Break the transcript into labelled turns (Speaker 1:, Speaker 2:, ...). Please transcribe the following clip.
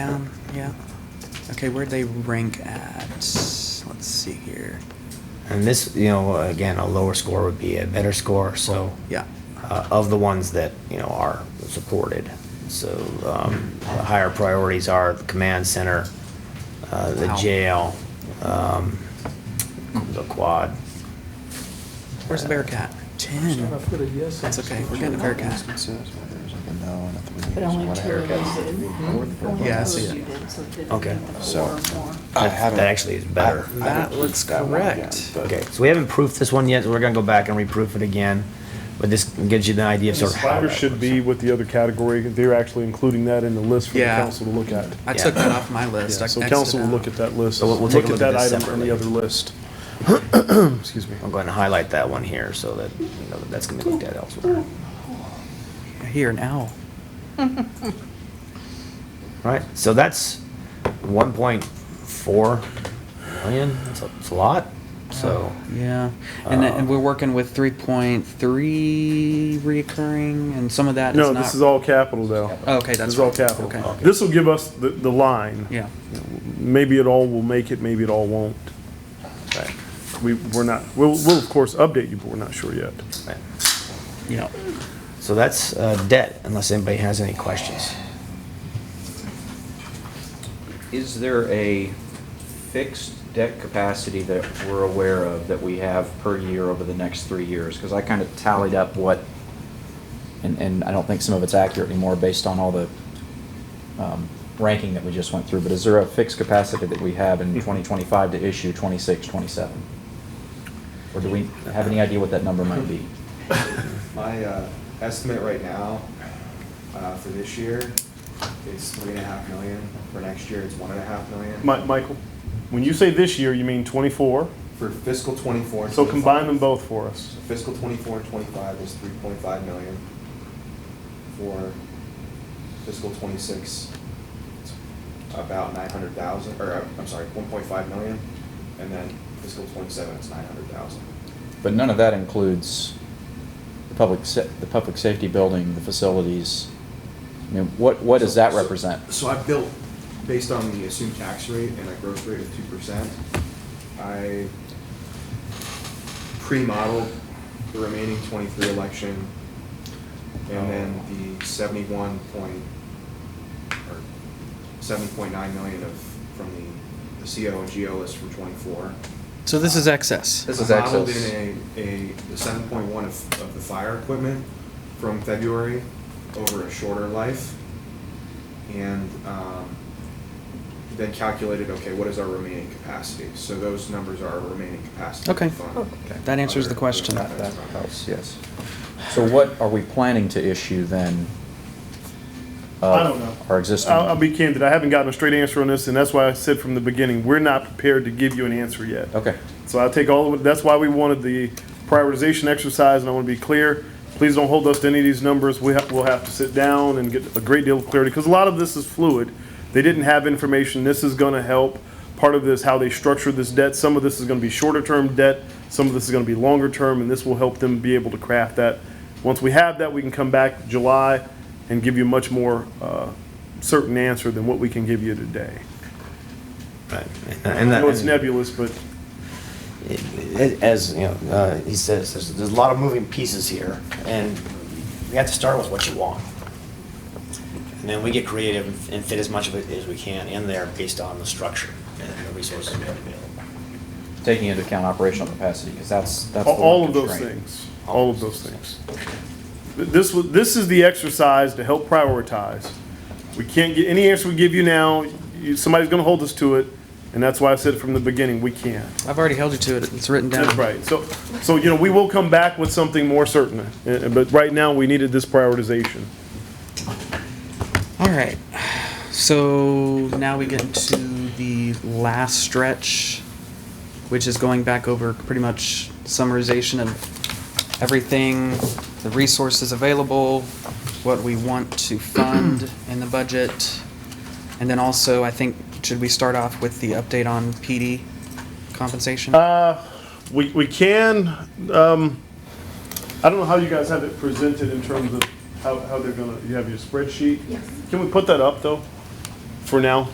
Speaker 1: Um, yeah. Okay, where'd they rank at? Let's see here.
Speaker 2: And this, you know, again, a lower score would be a better score, so.
Speaker 1: Yeah.
Speaker 2: uh, Of the ones that, you know, are supported. So, um, the higher priorities are the command center, uh, the
Speaker 1: Wow.
Speaker 2: jail, um, the quad.
Speaker 1: Where's the Bearcat? Ten. That's okay. We're getting a Bearcat.
Speaker 3: But only two of Mm-hmm. us did.
Speaker 1: Yeah, I
Speaker 3: Only two
Speaker 1: see
Speaker 3: of
Speaker 1: it.
Speaker 3: you did, so it didn't
Speaker 2: Okay.
Speaker 3: get the
Speaker 4: So-
Speaker 3: four or more.
Speaker 4: I
Speaker 2: That-
Speaker 4: haven't-
Speaker 2: That actually is better.
Speaker 4: I- I
Speaker 1: That
Speaker 4: haven't
Speaker 1: looks
Speaker 4: proofed that one yet,
Speaker 1: correct.
Speaker 4: but-
Speaker 2: Okay, so we haven't proofed this one yet, so we're gonna go back and reproof it again. But this gives you the idea of
Speaker 5: The
Speaker 2: sort of how.
Speaker 5: Spider
Speaker 2: that
Speaker 5: should
Speaker 2: works.
Speaker 5: be with the other category, they're actually including that in the list for the
Speaker 1: Yeah.
Speaker 5: council to look at.
Speaker 1: I
Speaker 2: Yeah.
Speaker 1: took that off my list.
Speaker 5: Yeah,
Speaker 1: I
Speaker 5: So
Speaker 1: X'd
Speaker 5: council
Speaker 1: it
Speaker 5: will
Speaker 1: out.
Speaker 5: look at that list,
Speaker 2: So we'll- we'll
Speaker 5: look
Speaker 2: take a
Speaker 5: at
Speaker 2: look at
Speaker 5: that
Speaker 2: this
Speaker 5: item from the other
Speaker 2: separately.
Speaker 5: list. Excuse me.
Speaker 2: I'm going to highlight that one here so that, you know, that's gonna be looked at elsewhere.
Speaker 1: Here, an owl.
Speaker 2: Right, so that's one point four million, that's a, that's a lot, so.
Speaker 1: Yeah. And, then- and
Speaker 2: Uh,
Speaker 1: we're working with 3.3 reoccurring, and some of that is
Speaker 5: No,
Speaker 1: not.
Speaker 5: this is all capital though.
Speaker 1: Oh, okay, that's
Speaker 5: This is all
Speaker 1: right.
Speaker 5: capital.
Speaker 1: Okay.
Speaker 5: This will give us the, the line.
Speaker 1: Yeah.
Speaker 5: Maybe it all will make it, maybe it all won't.
Speaker 2: right,
Speaker 5: We, we're not, we'll, we'll of course update you, but we're not sure yet.
Speaker 2: right.
Speaker 1: Yeah.
Speaker 2: So that's uh, debt, unless anybody has any questions.
Speaker 6: Is there a fixed debt capacity that we're aware of that we have per year over the next three years? Because I kind of tallied up what, and, and I don't think some of it's accurate anymore based on all the um, ranking that we just went through, but is there a fixed capacity that we have in 2025 to issue 26, 27? Or do we have any idea what that number might be?
Speaker 4: My uh, estimate right now uh, for this year is three and a half million. For next year, it's one and a half million.
Speaker 5: Mi- Michael, when you say this year, you mean twenty-four?
Speaker 4: For fiscal twenty-four. and
Speaker 5: So combine
Speaker 4: 25
Speaker 5: them both for us.
Speaker 4: Fiscal twenty-four and twenty-five is three point five million. For fiscal twenty-six, it's about nine hundred thousand, or uh, I'm sorry, one point five million. And then fiscal twenty-seven, it's nine hundred thousand.
Speaker 6: But none of that includes the public, sa- the public safety building, the facilities. I mean, what, what does that
Speaker 4: So-
Speaker 6: represent?
Speaker 4: So I built, based on the assumed tax rate and a growth rate of two percent, I pre-modeled the remaining twenty-three election and
Speaker 6: Oh.
Speaker 4: then the seventy-one point, or seventy point nine million of, from the, the CO and GO list from twenty-four.
Speaker 1: So this is excess.
Speaker 6: This is
Speaker 4: I Modeled
Speaker 6: excess.
Speaker 4: in a, a seven point one of, of the fire equipment from February over a shorter life. And, um, then calculated, okay, what is our remaining capacity? So those numbers are our remaining capacity. of the
Speaker 1: Okay.
Speaker 4: fund.
Speaker 1: That answers the
Speaker 4: Other-
Speaker 1: question.
Speaker 4: other
Speaker 6: That
Speaker 4: aspects.
Speaker 6: helps, yes. So what are we planning to issue then? of
Speaker 5: I don't know.
Speaker 6: Our existing?
Speaker 5: I'll, I'll be candid, I haven't gotten a straight answer on this, and that's why I said from the beginning, we're not prepared to give you an answer yet.
Speaker 6: Okay,
Speaker 5: So I take all of it, that's why we wanted the prioritization exercise, and I want to be clear. Please don't hold us to any of these numbers. We have, we'll have to sit down and get a great deal of clarity, because a lot of this is fluid. They didn't have information. This is going to help. Part of this, how they structure this debt, some of this is going to be shorter-term debt, some of this is going to be longer-term, and this will help them be able to craft that. Once we have that, we can come back July and give you a much more uh, certain answer than what we can give you today.
Speaker 2: Right.
Speaker 5: I
Speaker 2: And that-
Speaker 5: know it's nebulous, but
Speaker 2: as, you know, uh, he says, there's, there's a lot of moving pieces here, and we have to start with what you want. And then we get creative and- and fit as much of it as we can in there based on the structure and the resources we have available.
Speaker 6: taking into account operational capacity, because that's, that's. the
Speaker 5: All-
Speaker 6: one
Speaker 5: All of those
Speaker 6: constraint.
Speaker 5: things, all of those things. Th- This, was- this is the exercise to help prioritize. We can't get, any answer we give you now, you- somebody's gonna hold us to it, and that's why I said from the beginning, we can't.
Speaker 1: I've already held you to it. It's written down.
Speaker 5: That's right, so, so, you know, we will come back with something more certain, uh, but right now, we needed this prioritization.
Speaker 1: All right. So now we get into the last stretch, which is going back over pretty much summarization of everything, the resources available, what we want to fund in the budget. And then also, I think, should we start off with the update on PD compensation?
Speaker 5: We, we can, um, I don't know how you guys have it presented in terms of how, how they're gonna, you have your spreadsheet? Yes. Can we put that up, though, for now?